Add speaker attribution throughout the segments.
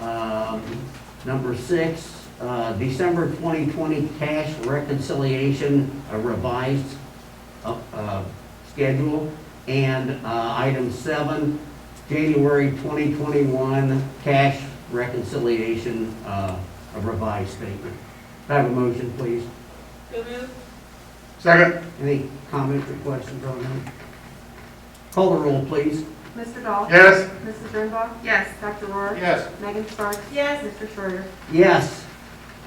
Speaker 1: Um, Number six, uh, December 2020 cash reconciliation a revised uh, uh, schedule. And uh, item seven, January 2021 cash reconciliation uh, a revised statement. Can I Have a motion, please.
Speaker 2: So moved.
Speaker 3: Second.
Speaker 1: Any comments or questions on that? Call the roll, please.
Speaker 4: Mr. Dahl?
Speaker 3: Yes.
Speaker 4: Mrs. Dernbach? Yes. Dr. Rohr?
Speaker 3: Yes.
Speaker 4: Megan Sparks?
Speaker 2: Yes.
Speaker 4: Mr. Schroeder?
Speaker 1: Yes.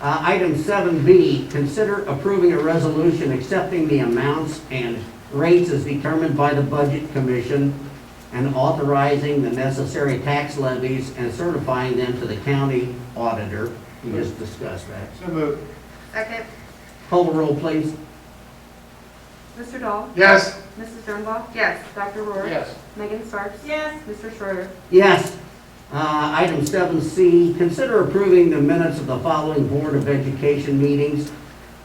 Speaker 1: Uh, Item 7B, consider approving a resolution accepting the amounts and rates as determined by the Budget Commission and authorizing the necessary tax levies and certifying them to the county auditor. We just discussed that.
Speaker 3: So moved.
Speaker 4: Second.
Speaker 1: Call the roll, please.
Speaker 4: Mr. Dahl?
Speaker 3: Yes.
Speaker 4: Mrs. Dernbach? Yes. Dr. Rohr?
Speaker 3: Yes.
Speaker 4: Megan Sparks?
Speaker 2: Yes.
Speaker 4: Mr. Schroeder?
Speaker 1: Yes. Uh, Item 7C, consider approving the minutes of the following Board of Education meetings.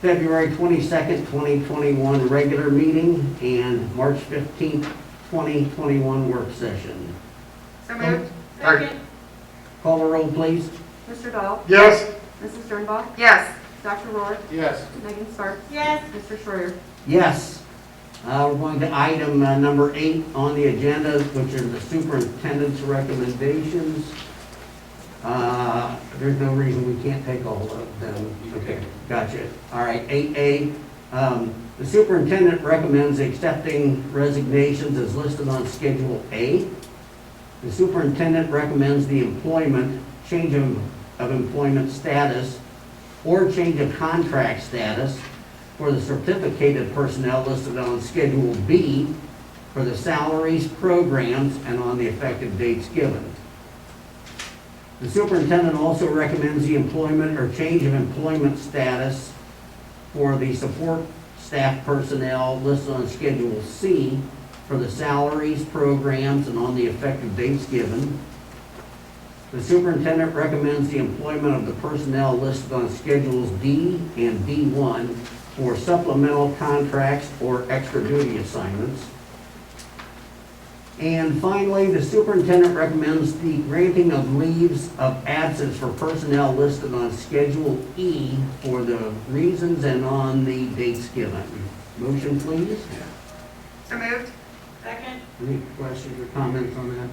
Speaker 1: February 22nd, 2021, regular meeting, and March 15th, 2021, work session.
Speaker 4: So
Speaker 3: moved.
Speaker 2: Second.
Speaker 1: Call the roll, please.
Speaker 4: Mr. Dahl?
Speaker 3: Yes.
Speaker 4: Mrs. Dernbach? Yes. Dr. Rohr?
Speaker 3: Yes.
Speaker 4: Megan Sparks?
Speaker 2: Yes.
Speaker 4: Mr. Schroeder?
Speaker 1: Yes. Uh, We're going to item uh, number eight on the agenda, which are the superintendent's recommendations. Uh, There's no reason we can't take all of them.
Speaker 3: You
Speaker 1: Okay,
Speaker 3: can.
Speaker 1: gotcha. All right, eight A, um, the superintendent recommends accepting resignations as listed on Schedule A. The superintendent recommends the employment, change of of employment status or change of contract status for the certificated personnel listed on Schedule B for the salaries, programs, and on the effective dates given. The superintendent also recommends the employment or change of employment status for the support staff personnel listed on Schedule C for the salaries, programs, and on the effective dates given. The superintendent recommends the employment of the personnel listed on Schedules D and D1 for supplemental contracts or extra duty assignments. And finally, the superintendent recommends the granting of leaves of absence for personnel listed on Schedule E for the reasons and on the dates given. Motion, please.
Speaker 4: So moved.
Speaker 2: Second.
Speaker 1: Any questions or comments on that?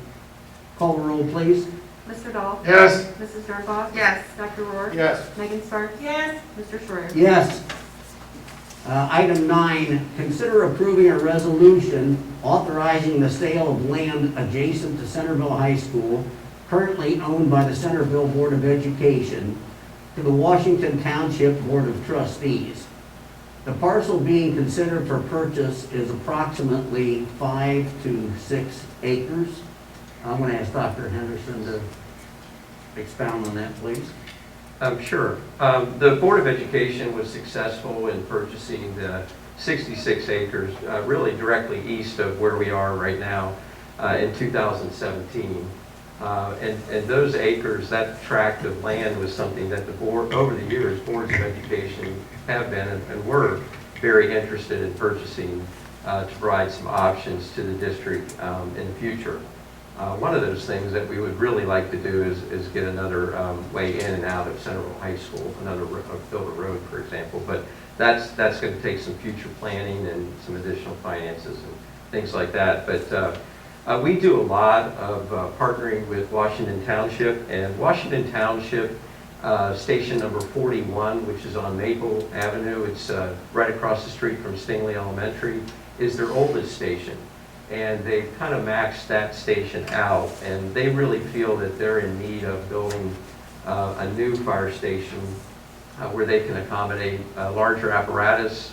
Speaker 1: Call the roll, please.
Speaker 4: Mr. Dahl?
Speaker 3: Yes.
Speaker 4: Mrs. Dernbach? Yes. Dr. Rohr?
Speaker 3: Yes.
Speaker 4: Megan Sparks?
Speaker 2: Yes.
Speaker 4: Mr. Schroeder?
Speaker 1: Yes. Uh, Item nine, consider approving a resolution authorizing the sale of land adjacent to Centerville High School, currently owned by the Centerville Board of Education, to the Washington Township Board of Trustees. The parcel being considered for purchase is approximately five to six acres. I'm going to ask Dr. Henderson to expound on that, please.
Speaker 5: Um, Sure. Um, The Board of Education was successful in purchasing the 66 acres, uh, really directly east of where we are right now, uh, in 2017. Uh, And and those acres, that tract of land was something that the board, over the years, boards of education have been and and were very interested in purchasing uh, to provide some options to the district um, in the future. Uh, One of those things that we would really like to do is, is get another um, way in and out of Central High School, another, ro- uh, build a road, for example. But that's, that's going to take some future planning and some additional finances and things like that. But uh, uh, we do a lot of uh, partnering with Washington Township, and Washington Township, uh, Station Number 41, which is on Maple Avenue, it's uh, right across the street from Stingley Elementary, is their oldest station and they've kind of maxed that station out, and they really feel that they're in need of building uh, a new fire station uh, where they can accommodate a larger apparatus.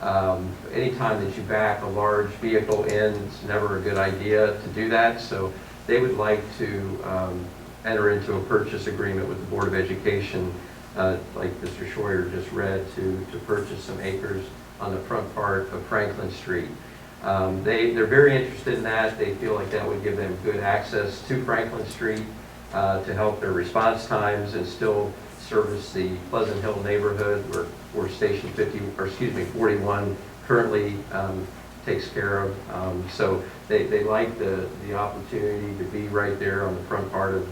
Speaker 5: Um, Anytime that you back a large vehicle in, it's never a good idea to do that, so they would like to um, enter into a purchase agreement with the Board of Education, uh, like Mr. Schroyer just read, to, to purchase some acres on the front part of Franklin Street. Um, They, they're very interested in that. They feel like that would give them good access to Franklin Street uh, to help their response times and still service the Pleasant Hill neighborhood where, where Station 50, or excuse me, 41 currently um, takes care of. Um, So they, they like the, the opportunity to be right there on the front part of